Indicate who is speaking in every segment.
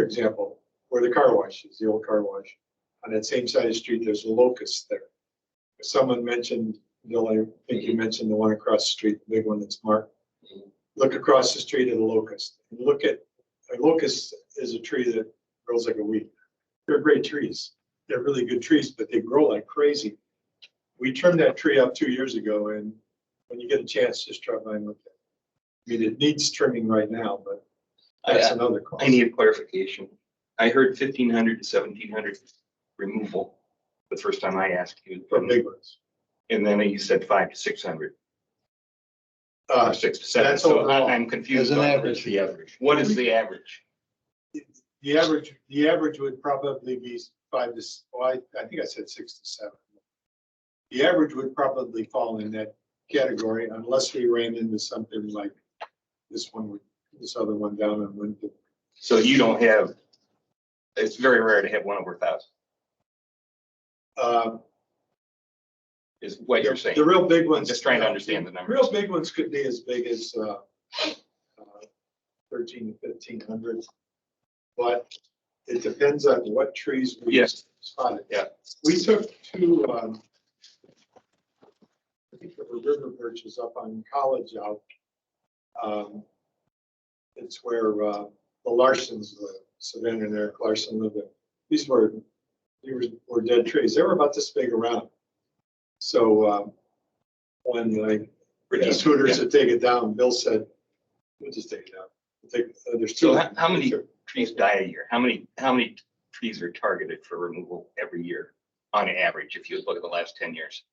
Speaker 1: for example, where the car wash is, the old car wash. On that same side of the street, there's locusts there. Someone mentioned, Bill, I think you mentioned the one across the street, the big one that's marked. Look across the street at a locust. Look at, a locust is a tree that grows like a weed. They're great trees. They're really good trees, but they grow like crazy. We trimmed that tree up two years ago and when you get a chance, just try by and look at it. I mean, it needs trimming right now, but that's
Speaker 2: I,
Speaker 1: another cost.
Speaker 2: Oh, I need a clarification. I heard fifteen hundred to seventeen hundred removal the first time I asked you.
Speaker 1: For big ones.
Speaker 2: And then you said five to six hundred,
Speaker 1: Uh,
Speaker 2: or six to seven,
Speaker 1: that's
Speaker 2: so
Speaker 1: overall.
Speaker 2: I- I'm
Speaker 3: As
Speaker 2: confused.
Speaker 3: an
Speaker 2: on-
Speaker 3: average. The average.
Speaker 2: What is the average?
Speaker 1: The average, the average would probably be five to, s- well, I, I think I said six to seven. The average would probably fall in that category unless we ran into something like this one, with- this other one down on Winfield.
Speaker 2: So you don't have, it's very rare to have one over a thousand,
Speaker 1: Um,
Speaker 2: is what you're
Speaker 1: The
Speaker 2: saying.
Speaker 1: real big
Speaker 2: I'm
Speaker 1: ones.
Speaker 2: just trying to understand the numbers.
Speaker 1: Real big ones could be as big as, uh, uh, thirteen to fifteen hundred. But it depends on what trees we
Speaker 2: Yes.
Speaker 1: spotted.
Speaker 2: Yeah.
Speaker 1: We took two, um, I think there were river birches up on College out. Um, It's where, uh, the Larsons live, Savannah and Eric Larson lived there. These were, these were- were dead trees. They were about this big around. So, um, when like the
Speaker 2: Reduce-
Speaker 1: Hooters
Speaker 2: yeah.
Speaker 1: to take it down, Bill said, we'll just take it down. We'll Take, uh, there's two.
Speaker 2: So how- how many- Trees die a year. How many, how many trees are targeted for removal every year on average, if you look at the last ten years?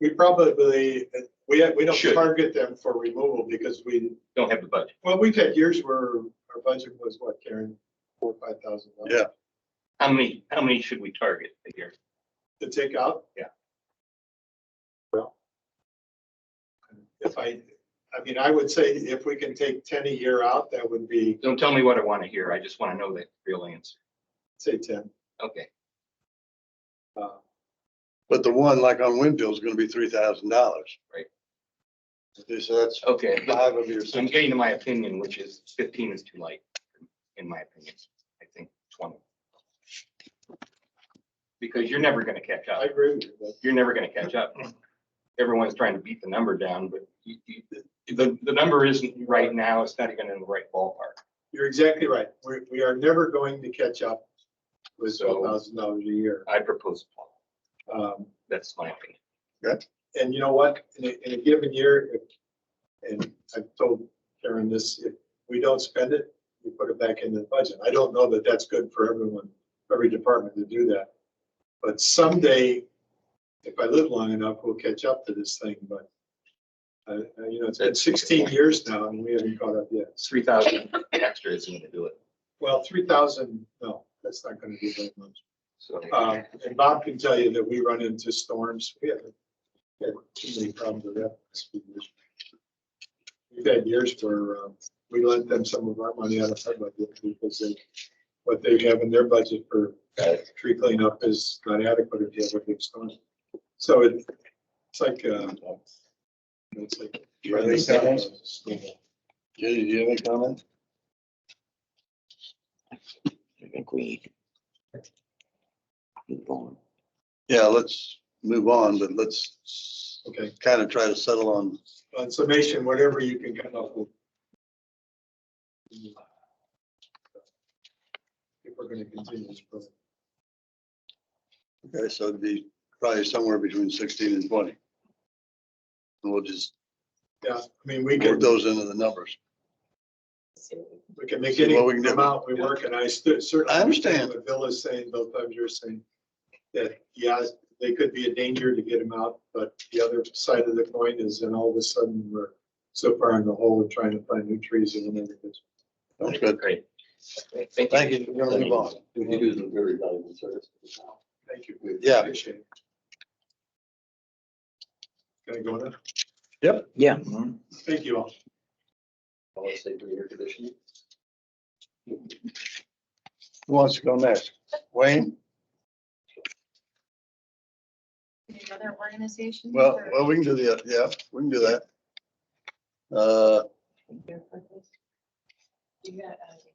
Speaker 1: We probably, we, we don't
Speaker 2: Should.
Speaker 1: target them for removal because we,
Speaker 2: Don't have the budget.
Speaker 1: well, we've had years where our budget was what, Karen? Four, or five thousand dollars.
Speaker 4: Yeah.
Speaker 2: How many, how many should we target a year?
Speaker 1: To take out?
Speaker 2: Yeah.
Speaker 1: Well. If I, I mean, I would say if we can take ten a year out, that would be,
Speaker 2: Don't tell me what I want to hear. I just want to know the real answer.
Speaker 1: say ten.
Speaker 2: Okay.
Speaker 1: Uh,
Speaker 4: But the one like on Winfield is gonna be three thousand dollars.
Speaker 2: Right.
Speaker 4: Okay, So that's
Speaker 2: Okay.
Speaker 4: five of your
Speaker 2: I'm
Speaker 4: six.
Speaker 2: getting to my opinion, which is fifteen is too light, in my opinion. I think twenty. Because you're never going to catch
Speaker 1: I
Speaker 2: up.
Speaker 1: agree with you, but
Speaker 2: You're never going to catch up. Everyone's trying to beat the number down, but you- you- the, the number isn't right now. It's not even in the right ballpark.
Speaker 1: you're exactly right. We, we are never going to catch up with
Speaker 2: So-
Speaker 1: twelve thousand dollars a year.
Speaker 2: I propose, 12.
Speaker 1: Um,
Speaker 2: that's my opinion.
Speaker 1: And you know what, in a, in a given year, if, and I've told Karen this, if we don't spend it, we put it back into the budget. I don't know that that's good for everyone, every department to do that. But someday, if I live long enough, we'll catch up to this thing, but uh, uh, you know, it's been
Speaker 2: That's-
Speaker 1: sixteen years now and we haven't caught up yet.
Speaker 2: Three thousand extra isn't going to do it.
Speaker 1: Well, three thousand, no, that's not gonna be very much.
Speaker 2: So.
Speaker 4: Uh,
Speaker 1: Um, and Bob can tell you that we run into storms. We haven't had too many problems with that. this few years. We've had years where, um, we lent them some of our money out of our budget because they, what they have in their budget for tree cleanup is not adequate if you have a big storm. So it, it's like, uh, it's like.
Speaker 4: you have any comments? Jenny, do you have any comment?
Speaker 5: I think we need. Keep going.
Speaker 4: Yeah, let's move on, but let's
Speaker 1: Okay,
Speaker 4: kind of try to settle on,
Speaker 1: on Uh, summation, whatever you can come up with. If we're gonna continue this program.
Speaker 4: okay, so it'd be probably somewhere between sixteen and twenty. And we'll just
Speaker 1: Yeah, I mean, we
Speaker 4: work
Speaker 1: could,
Speaker 4: those into the numbers.
Speaker 1: we can make
Speaker 4: See
Speaker 1: any
Speaker 4: what we can do.
Speaker 1: amount we work, and I stu- certainly.
Speaker 4: I understand.
Speaker 1: What Bill is saying, both of you are saying, that, yeah, they could be a danger to get them out, but the other side of the coin is then all of a sudden, we're so far in the hole of trying to find new trees and everything.
Speaker 4: Sounds good.
Speaker 2: Great. Thank you.
Speaker 4: Thank you. We're gonna move on.
Speaker 3: You do some very valuable service.
Speaker 1: Thank you. we
Speaker 4: Yeah.
Speaker 1: Appreciate it. Can I go now?
Speaker 5: Yeah,
Speaker 1: Thank you all.
Speaker 3: I'll say for air conditioning.
Speaker 4: Who wants to go next? Wayne?
Speaker 6: Any other organizations?
Speaker 4: Well,
Speaker 6: or-
Speaker 4: well, we can do the, yeah, we can do that. Uh,
Speaker 6: You got, uh,